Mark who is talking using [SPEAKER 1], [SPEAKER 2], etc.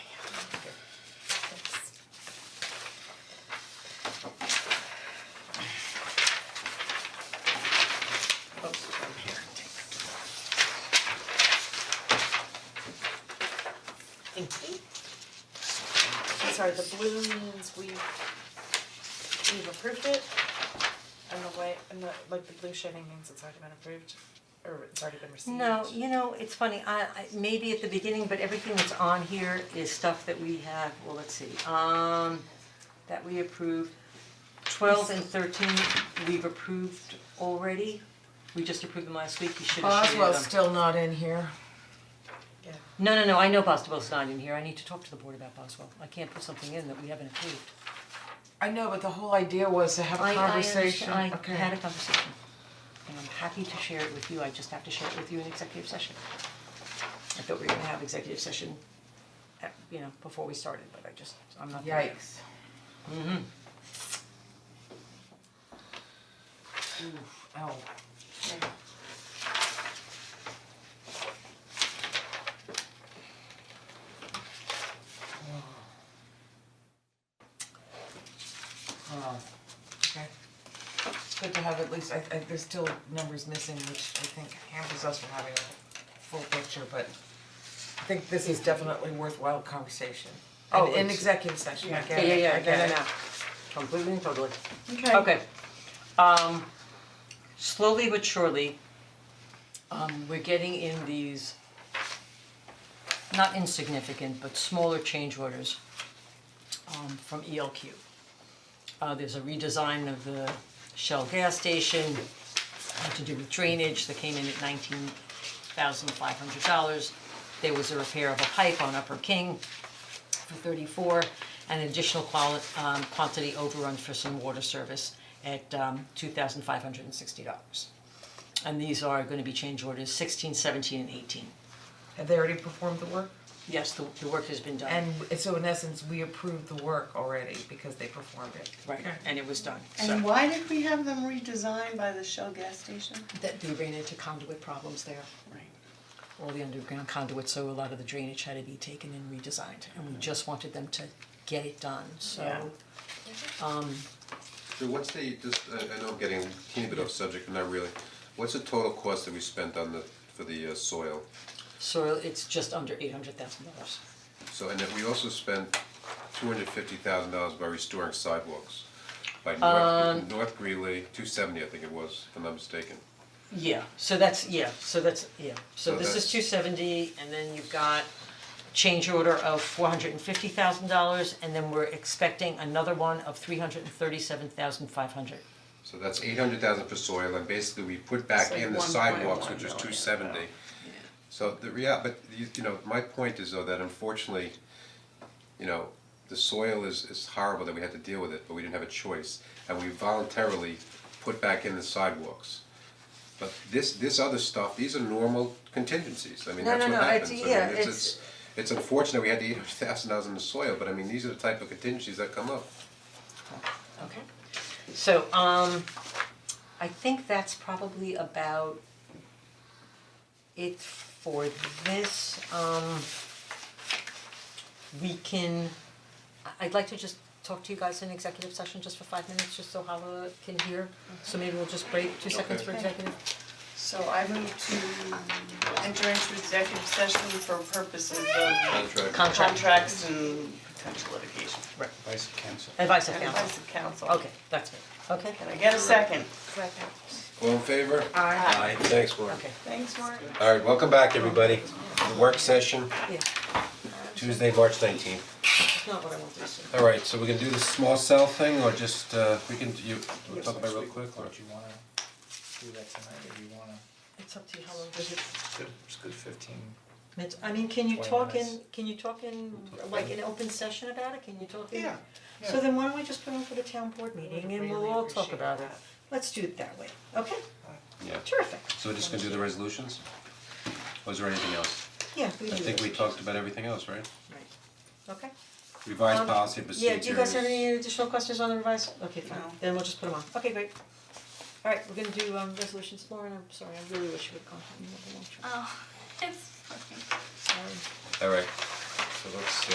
[SPEAKER 1] sorry, the blue means we've we've approved it. And the white and the like the blue shading means it's already been approved or it's already been received.
[SPEAKER 2] No, you know, it's funny, I, I, maybe at the beginning, but everything that's on here is stuff that we have, well, let's see, um, that we approved. Twelve and thirteen, we've approved already, we just approved them last week, you should have shared them.
[SPEAKER 3] Boswell's still not in here.
[SPEAKER 1] Yeah.
[SPEAKER 2] No, no, no, I know Boswell's not in here, I need to talk to the board about Boswell, I can't put something in that we haven't approved.
[SPEAKER 3] I know, but the whole idea was to have
[SPEAKER 2] I-
[SPEAKER 3] a
[SPEAKER 2] I
[SPEAKER 3] conversation, okay.
[SPEAKER 2] understand- I had a conversation, and I'm happy to share it with you, I just have to share it with you in executive session. I thought we were gonna have executive session, uh, you know, before we started, but I just, I'm not there.
[SPEAKER 3] Yikes. Mm-hmm. Ooh,
[SPEAKER 2] Oh,
[SPEAKER 3] ow. Oh, okay. It's good to have at least, I I there's still numbers missing, which I think hampers us from having a full picture, but I think this is definitely worthwhile conversation.
[SPEAKER 2] Oh,
[SPEAKER 3] And in
[SPEAKER 2] it's-
[SPEAKER 3] executive session, I
[SPEAKER 2] Yeah,
[SPEAKER 3] get it,
[SPEAKER 2] yeah, yeah,
[SPEAKER 3] I
[SPEAKER 2] yeah, yeah,
[SPEAKER 3] get it.
[SPEAKER 2] yeah, completely and totally.
[SPEAKER 1] Okay.
[SPEAKER 2] Okay, um, slowly but surely, um, we're getting in these not insignificant, but smaller change orders um, from ELQ. Uh, there's a redesign of the Shell gas station, had to do with drainage, that came in at nineteen thousand five hundred dollars. There was a repair of a pipe on Upper King, for thirty-four, and an additional quali- um, quantity overrun for some water service at, um, two thousand five hundred and sixty dollars. And these are gonna be change orders sixteen, seventeen, and eighteen.
[SPEAKER 3] Have they already performed the work?
[SPEAKER 2] Yes, the, the work has been done.
[SPEAKER 3] And so in essence, we approved the work already because they performed it.
[SPEAKER 2] Right, and it was done, so.
[SPEAKER 4] And why did we have them redesigned by the Shell gas station?
[SPEAKER 2] That they ran into conduit problems there. Right. All the underground conduit, so a lot of the drainage had to be taken and redesigned, and we just wanted them to get it done,
[SPEAKER 4] Yeah.
[SPEAKER 2] so.
[SPEAKER 5] So what's the, just, I I know I'm getting a teeny bit off subject, but not really. What's the total cost that we spent on the, for the uh, soil?
[SPEAKER 2] So it's just under eight hundred thousand dollars.
[SPEAKER 5] So, and then we also spent two hundred fifty thousand dollars by restoring sidewalks by North, North Greeley, two seventy, I think it was, if I'm not mistaken.
[SPEAKER 2] Yeah, so that's, yeah, so that's, yeah, so
[SPEAKER 5] So
[SPEAKER 2] this is
[SPEAKER 5] that's-
[SPEAKER 2] two seventy, and then you've got change order of four hundred and fifty thousand dollars, and then we're expecting another one of three hundred and thirty-seven thousand five hundred.
[SPEAKER 5] So that's eight hundred thousand for soil, and basically we put back in the sidewalks, which is two seventy. So the rea- but you, you know, my point is though that unfortunately, you know, the soil is, is horrible that we had to deal with it, but we didn't have a choice, and we voluntarily put back in the sidewalks. But this, this other stuff, these are normal contingencies, I mean,
[SPEAKER 2] No,
[SPEAKER 5] that's
[SPEAKER 2] no,
[SPEAKER 5] what
[SPEAKER 2] no, it's-
[SPEAKER 5] happens, I mean,
[SPEAKER 2] yeah,
[SPEAKER 5] it's,
[SPEAKER 2] it's-
[SPEAKER 5] it's, it's unfortunate we had the eight hundred thousand dollars in the soil, but I mean, these are the type of contingencies that come up.
[SPEAKER 2] Okay. So, um, I think that's probably about it for this, um, we can, I- I'd like to just talk to you guys in executive session just for five minutes, just so Hala can hear. So maybe we'll just break two seconds for
[SPEAKER 4] Okay.
[SPEAKER 2] executive.
[SPEAKER 4] So I move to enter into executive session for purposes of
[SPEAKER 5] Contract.
[SPEAKER 4] contracts and potential litigation.
[SPEAKER 6] Vice counsel.
[SPEAKER 2] Advice of counsel.
[SPEAKER 4] Advice of counsel.
[SPEAKER 2] Okay, that's me. Okay.
[SPEAKER 4] Can I get a second?
[SPEAKER 5] All in favor?
[SPEAKER 6] Aye, thanks, Warren.
[SPEAKER 2] Okay.
[SPEAKER 4] Thanks, Mark.
[SPEAKER 6] Alright, welcome back, everybody. The work session,
[SPEAKER 2] Yeah,
[SPEAKER 6] Tuesday, March nineteenth.
[SPEAKER 2] it's not what I wanted to say.
[SPEAKER 5] Alright, so we're gonna do the small cell thing, or just, uh, we can, you, we'll talk about it real quick, or?
[SPEAKER 6] Don't you wanna do that tonight, or do you wanna?
[SPEAKER 2] It's up to you, how long does it,
[SPEAKER 6] Good, it's good fifteen.
[SPEAKER 2] it's, I mean, can you
[SPEAKER 6] Twenty
[SPEAKER 2] talk in,
[SPEAKER 6] minutes.
[SPEAKER 2] can you talk in, like, in open session about it, can you talk in?
[SPEAKER 6] Yeah,
[SPEAKER 2] So then why don't we just put on for the town board meeting and we'll
[SPEAKER 3] really
[SPEAKER 2] all talk
[SPEAKER 3] appreciate
[SPEAKER 2] about it,
[SPEAKER 3] that.
[SPEAKER 2] let's do it that way, okay?
[SPEAKER 5] Yeah.
[SPEAKER 2] Terrific,
[SPEAKER 5] So we're just gonna do the resolutions? Or is there anything else?
[SPEAKER 2] yeah, we
[SPEAKER 5] I
[SPEAKER 2] can do
[SPEAKER 5] think
[SPEAKER 2] it.
[SPEAKER 5] we talked about everything else, right?
[SPEAKER 2] Right, okay.
[SPEAKER 5] Revised
[SPEAKER 2] Um,
[SPEAKER 5] policy and procedures.
[SPEAKER 2] Yeah, do you guys have any additional questions on the revised, okay, fine,
[SPEAKER 4] No.
[SPEAKER 2] then we'll just put them on, okay, great. Alright, we're gonna do um resolutions, Lauren, I'm sorry, I really wish you would come
[SPEAKER 3] Uh,
[SPEAKER 2] home, you have a long trip,
[SPEAKER 7] Oh, it's okay.
[SPEAKER 2] sorry.
[SPEAKER 5] Alright, so let's, uh,